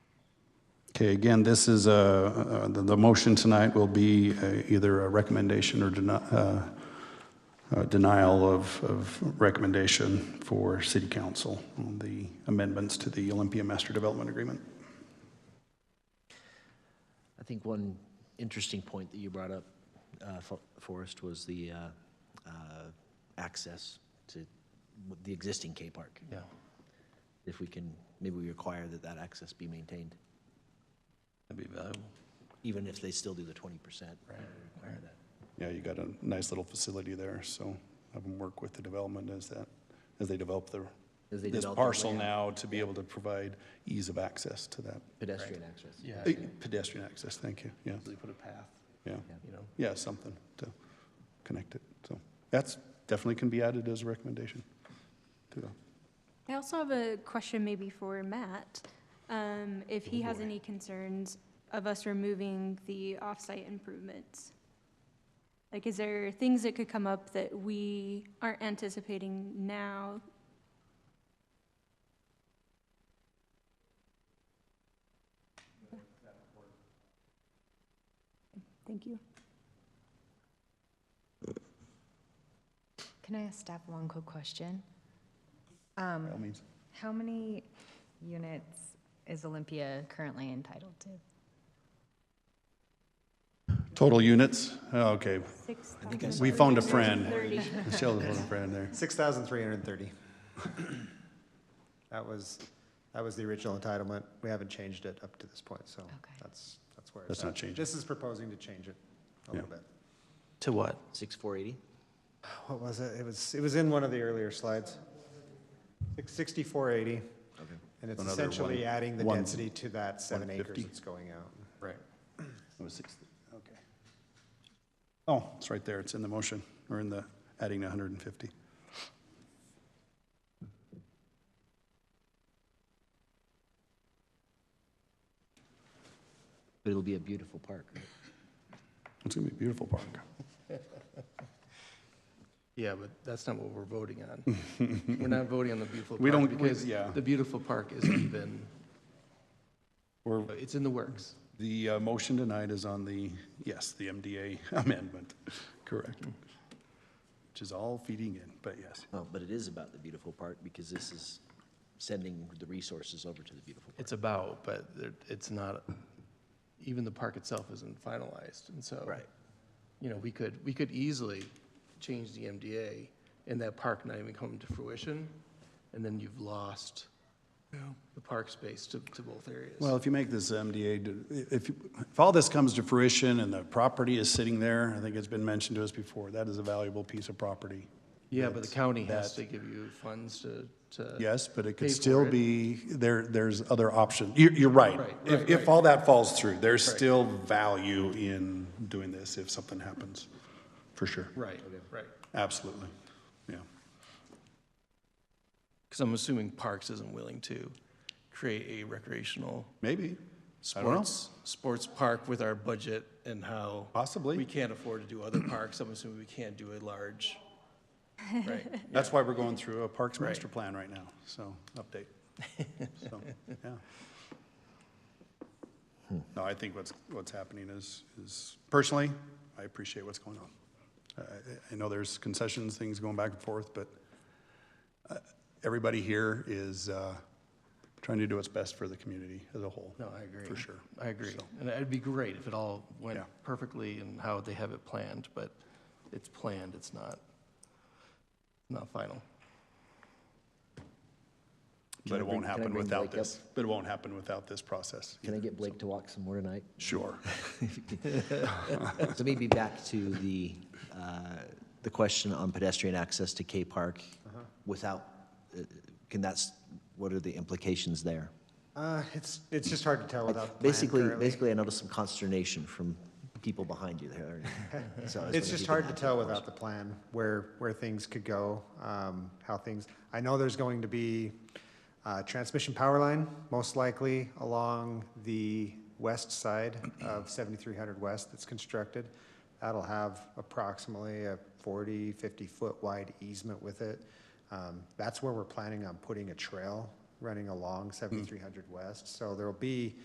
Okay, again, this is, uh, uh, the the motion tonight will be uh, either a recommendation or deni- uh, uh, denial of of recommendation for city council on the amendments to the Olympia Master Development Agreement. I think one interesting point that you brought up, uh, Fo- Forrest, was the uh, uh, access to w- the existing K Park. Yeah. If we can, maybe we require that that access be maintained, That'd be valuable. even if they still do the 20%. Require that. Yeah, you got a nice little facility there, so have them work with the development as that, as they develop their, As they this develop their parcel layout. now to be able to provide ease of access to that, Pedestrian access. Yeah. Eh, pedestrian access, thank you, yeah, They put a path, yeah. you know? Yeah, something to connect it, so that's definitely can be added as a recommendation to the, I also have a question maybe for Matt, um, if he Oh, has boy. any concerns of us removing the off-site improvements. Like, is there things that could come up that we aren't anticipating now? Thank you. Can I ask staff one quick question? Um, by all means. How many units is Olympia currently entitled to? Total units, Oh, okay, we found a friend, 6,030. Michelle found a friend there. 6,330. That was, that was the original entitlement. We haven't changed it up to this point, so Okay. that's, that's where it's That's at. not changing. This is proposing to change it a little Yeah. bit. To what? 6480? What was it? It was, it was in one of the earlier slides. Six- 6480, Okay. and it's Another essentially one- adding the one- density to that seven acres 150. that's going out. Right. It was six, okay. Oh, it's right there, it's in the motion, or in the, adding 150. But it'll be a beautiful park. right? It's gonna be a beautiful park. Yeah, but that's not what we're voting on. We're not voting on the beautiful park. We don't- we- Because yeah. the beautiful park isn't even, We're, it's in the works. the uh, motion tonight is on the, yes, the MDA amendment, correct. Mm. Which is all feeding in, but yes. Well, but it is about the beautiful park because this is sending the resources over to the beautiful park. It's about, but there- it's not, even the park itself isn't finalized, and so. Right. You know, we could, we could easily change the MDA and that park not even come to fruition, and then you've lost the park space to, to both areas. Well, if you make this MDA, do- if, you- if all this comes to fruition and the property is sitting there, I think it's been mentioned to us before, that is a valuable piece of property. Yeah, but the county has that- to give you funds to, to. Yes, but it pay could for still it. be, there, there's other options. You're, you're right. Right, If, right, if right. all that falls through, there's still value in doing this if something happens, for sure. Right, right. Absolutely, yeah. Because I'm assuming Parks isn't willing to create a recreational Maybe, I don't know. sports, sports park with our budget and how. Possibly. We can't afford to do other parks. I'm assuming we can't do a large, right? That's why we're going through a Parks Right. Master Plan right now, so, update. So, yeah. No, I think what's, what's happening is, is, personally, I appreciate what's going on. I- I I know there's concessions, things going back and forth, but uh, everybody here is uh, trying to do what's best for the community as a whole. No, I agree. For sure. I agree. So- And it'd be great if it all went Yeah. perfectly and how they have it planned, but it's planned, it's not, not final. Can But I it bring- won't can I happen bring without Blake up? this, but it won't happen without this process. Can I either. get Blake to walk some more tonight? Sure. So maybe back to the, uh, the question on pedestrian access to K Park Uh-huh. without, uh, can that's, what are the implications there? Uh, It's, it's just hard to tell without the plan Basically, currently. basically, I noticed some consternation from people behind you there. So I was It's wondering if just you hard to could- tell without the plan where, where things could go, um, how things, I know there's going to be a transmission power line, most likely along the west side of 7300 West that's constructed. That'll have approximately a 40, 50-foot wide easement with it. Um, That's where we're planning on putting a trail running along 7300 West. So there'll be